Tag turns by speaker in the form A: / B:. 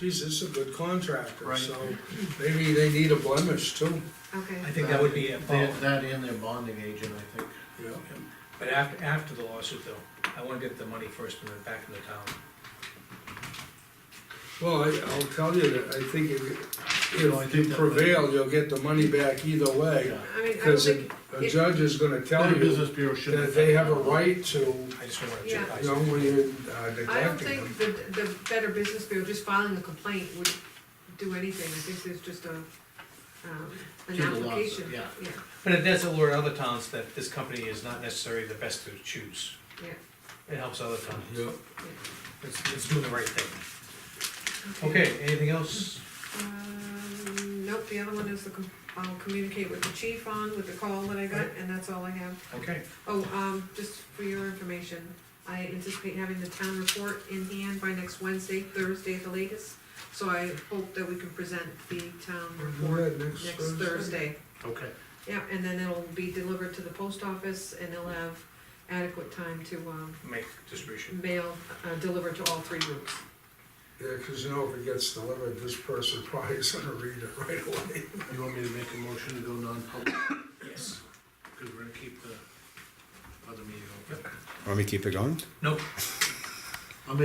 A: geez, this is a good contractor,
B: Right.
A: so maybe they need a blemish too,
C: okay.
B: I think that would be a
D: They-
B: follow.
D: That and their bonding agent, I think.
A: you know.
B: But after, after the lawsuit though, I wanna get the money first and then back to the town.
A: Well, I, I'll tell you that, I think if,
D: You know, I
A: if
D: think
A: you
D: that-
A: prevail, you'll get the money back either way.
D: Yeah.
C: I mean, I don't
A: Cause a
C: think,
A: a judge is gonna tell
D: The
A: you
D: business bureau should.
A: that they have a right to,
B: I just don't wanna
C: Yeah.
A: you
B: jeopardize
A: know,
B: it.
A: when you're uh,
C: I don't
A: neglecting them.
C: think the, the Better Business Bureau, just filing a complaint would do anything, I think there's just a, um, an
D: Do the lawsuit,
C: application.
D: yeah.
C: Yeah,
B: But it does alert other towns that this company is not necessarily the best to choose.
C: yeah,
B: It helps other towns.
A: Yeah.
B: It's, it's doing the right thing. Okay, anything else?
C: Um, nope, the other one is the, com- I'll communicate with the chief on, with the call that I got, and that's all I have.
B: Okay,
C: Oh, um, just for your information, I anticipate having the town report in hand by next Wednesday, Thursday at the latest. So I hope that we can present the town
A: We're
C: report
A: at next
C: next
A: Thursday.
C: Thursday.
D: Okay,
C: Yeah, and then it'll be delivered to the post office and they'll have adequate time to, um,
B: make distribution.
C: mail, uh, deliver to all three groups.
A: Yeah, cause you know, if it gets delivered, this person probably is gonna read it right away.
D: you want me to make a motion to go non-public,
B: Yes.
D: because we're gonna keep the other meeting open?
E: Want me to keep it going?
B: Nope,